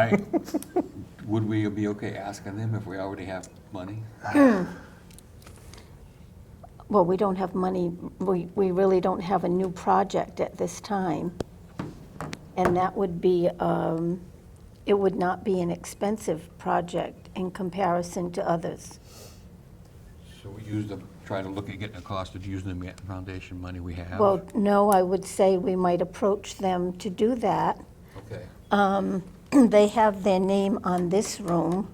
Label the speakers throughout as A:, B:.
A: I- Would we be okay asking them if we already have money?
B: Well, we don't have money, we, we really don't have a new project at this time. And that would be, um, it would not be an expensive project in comparison to others.
A: So we use the, try to look at getting a cost of using the foundation money we have?
B: Well, no, I would say we might approach them to do that.
A: Okay.
B: Um, They have their name on this room.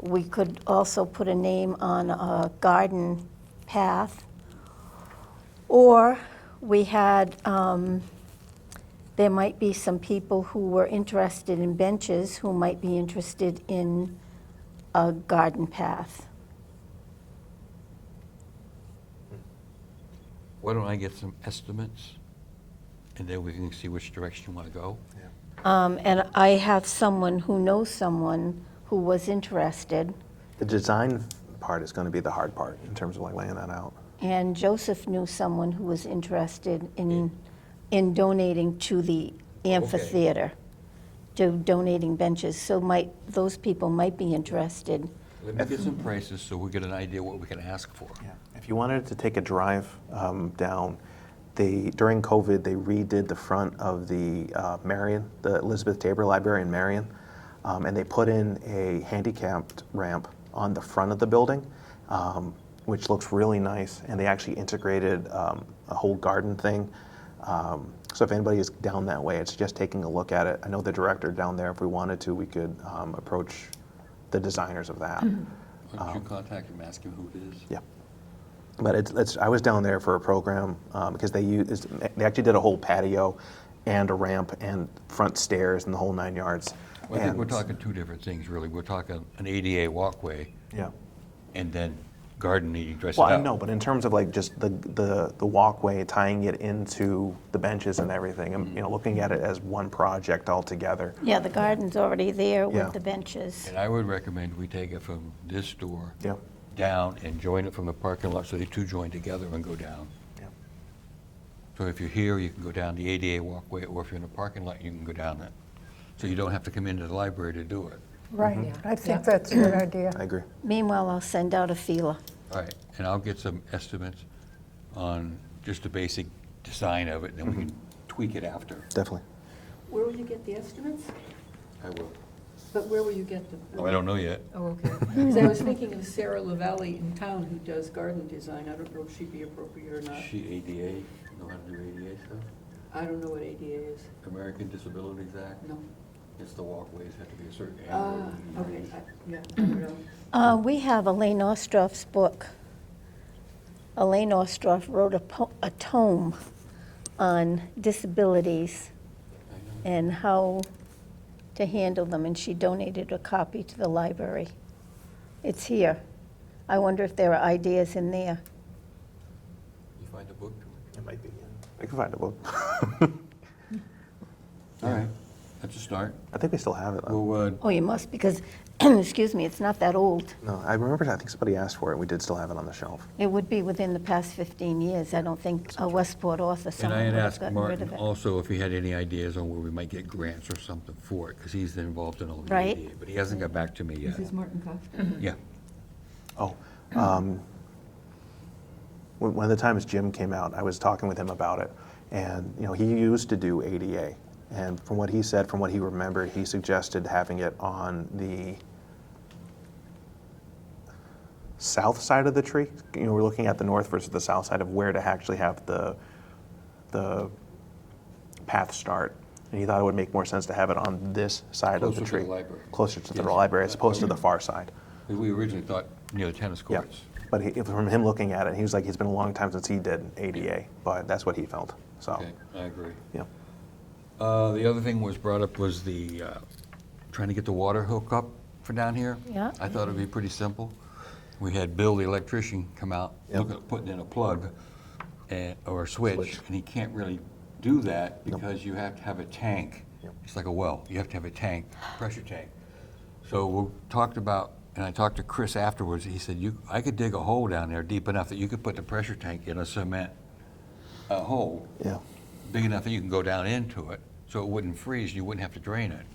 B: We could also put a name on a garden path. Or we had, um, there might be some people who were interested in benches who might be interested in a garden path.
A: Why don't I get some estimates? And then we can see which direction you want to go?
B: Um, And I have someone who knows someone who was interested.
C: The design part is going to be the hard part in terms of like laying that out.
B: And Joseph knew someone who was interested in, in donating to the amphitheater, to donating benches. So might, those people might be interested.
A: Let me get some prices so we get an idea what we can ask for.
C: Yeah. If you wanted to take a drive um, down, they during COVID they redid the front of the uh, Marion, the Elizabeth Tabor Library in Marion, um, and they put in a handicapped ramp on the front of the building, um, which looks really nice. And they actually integrated um, a whole garden thing. Um, so if anybody is down that way, it's just taking a look at it. I know the director down there. If we wanted to, we could um, approach the designers of that.
A: Why don't you contact him, ask him who it is?
C: Um, Yeah. But it's, it's, I was down there for a program um, because they used, they actually did a whole patio and a ramp and front stairs and the whole nine yards.
A: Well, I think we're
C: And-
A: talking two different things, really. We're talking an ADA walkway
C: Yeah.
A: and then garden needing dressed
C: Well,
A: up.
C: I know, but in terms of like just the, the, the walkway, tying it into the benches and everything, and, you know, looking at it as one project altogether.
B: Yeah, the garden's already there
C: Yeah.
B: with the benches.
A: And I would recommend we take it from this door
C: Yeah.
A: down and join it from the parking lot, so they two join together and go down.
C: Yeah.
A: So if you're here, you can go down the ADA walkway, or if you're in a parking lot, you can go down it. So you don't have to come into the library to do it.
D: Right, I think that's a good idea.
C: I agree.
B: Meanwhile, I'll send out a feeler.
A: All right, and I'll get some estimates on just the basic design of it, and then we can
E: Mm-hmm.
A: tweak it after.
C: Definitely.
E: Where will you get the estimates?
A: I will.
E: But where will you get them?
A: I don't know yet.
E: Oh, okay. Because I was thinking of Sarah Lavalley in town who does garden design. I don't know if she'd be appropriate or not.
A: She ADA, know how to do ADA stuff?
E: I don't know what ADA is.
A: American Disabilities Act,
E: No.
A: it's the walkways have to be a certain
E: Ah, okay, I- yeah, I don't know.
B: Uh, We have Elaine Ostroff's book. Elaine Ostroff wrote a po- a tome on disabilities and how to handle them, and she donated a copy to the library. It's here. I wonder if there are ideas in there.
A: You find a book?
C: It might be. I can find a book.
A: All right, that's a start.
C: I think we still have it though.
A: Well, uh,
B: Oh, you must, because, excuse me, it's not that old.
C: No, I remember, I think somebody asked for it. We did still have it on the shelf.
B: It would be within the past 15 years. I don't think a Westport author
A: And I
B: someone
A: had
B: would have
A: asked
B: gotten rid of
A: Martin
B: it.
A: also if he had any ideas on where we might get grants or something for it, because he's involved in all the
B: Right.
A: ADA, but he hasn't got back to me yet.
E: This is Martin Cox.
A: Yeah.
C: Oh, um, one one of the times Jim came out, I was talking with him about it, and you know he used to do ADA, and from what he said, from what he remembered, he suggested having it on the south side of the tree. You know, we're looking at the north versus the south side of where to actually have the the path start. And he thought it would make more sense to have it on this side of
A: Closer
C: the
A: to the
C: tree,
A: library.
C: closer to the
A: Yes.
C: library, as opposed to the far side.
A: 'Cause we originally thought near the tennis
C: Yeah,
A: courts.
C: but he, if- from him looking at it, he was like, it's been a long time since he did ADA, but that's what he felt, so,
A: Okay, I agree.
C: yeah.
A: Uh, The other thing was brought up was the, uh, trying to get the water hook up for down here.
B: Yeah.
A: I thought it'd be pretty simple. We had Bill, the electrician, come out,
C: Yeah.
A: look at putting in a plug and- or a switch,
C: Switch.
A: and he can't really do that because you have to have a tank.
C: Yep.
A: It's like a well, you have to have a tank, pressure tank. So we talked about, and I talked to Chris afterwards, he said, you, I could dig a hole down there deep enough that you could put the pressure tank in a cement uh, hole
C: Yeah,
A: big enough that you can go down into it, so it wouldn't freeze, and you wouldn't have to drain it.